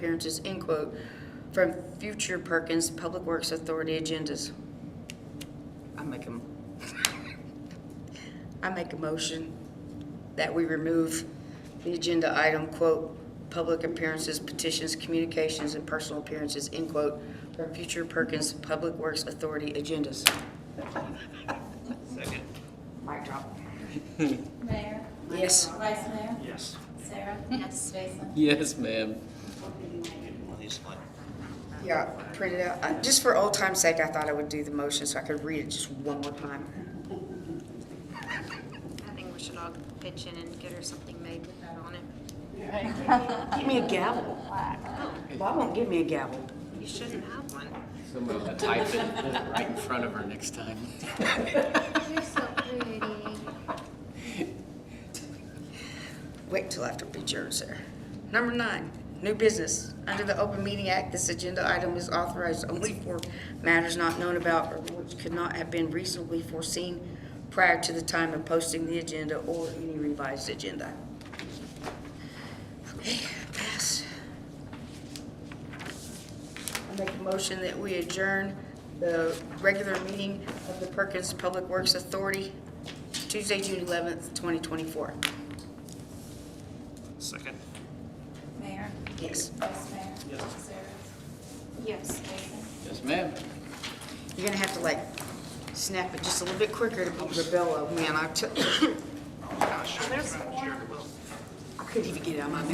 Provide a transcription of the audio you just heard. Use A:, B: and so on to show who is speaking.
A: appearances, end quote, from future Perkins Public Works Authority agendas. I make a, I make a motion that we remove the agenda item, quote, public appearances, petitions, communications, and personal appearances, end quote, from future Perkins Public Works Authority agendas.
B: Second.
A: Mic drop.
C: Mayor?
A: Yes.
C: Vice Mayor?
B: Yes.
C: Sarah? Yes. Jason?
D: Yes, ma'am.
B: One of these, like,
A: Yeah, print it out. Uh, Just for old time's sake, I thought I would do the motion so I could read it just one more time.
E: I think we should all pitch in and get her something made with that on it.
A: Give me a gavel. Bob won't give me a gavel.
E: You shouldn't have one.
D: Somebody will type it right in front of her next time.
E: You're so pretty.
A: Wait till after we adjourn, sir. Number nine, new business. Under the Open Meeting Act, this agenda item is authorized only for matters not known about or which could not have been reasonably foreseen prior to the time of posting the agenda or any revised agenda. Okay, pass. I make a motion that we adjourn the regular meeting of the Perkins Public Works Authority Tuesday, June 11th, 2024.
B: Second.
C: Mayor?
A: Yes.
C: Vice Mayor?
B: Yes.
C: Sarah?
E: Yes.
C: Jason?
D: Yes, ma'am.
A: You're gonna have to like snap it just a little bit quicker to beat Rebello, man, I took, I
B: Gosh, I'm sure it will.
A: couldn't even get it out of my mouth.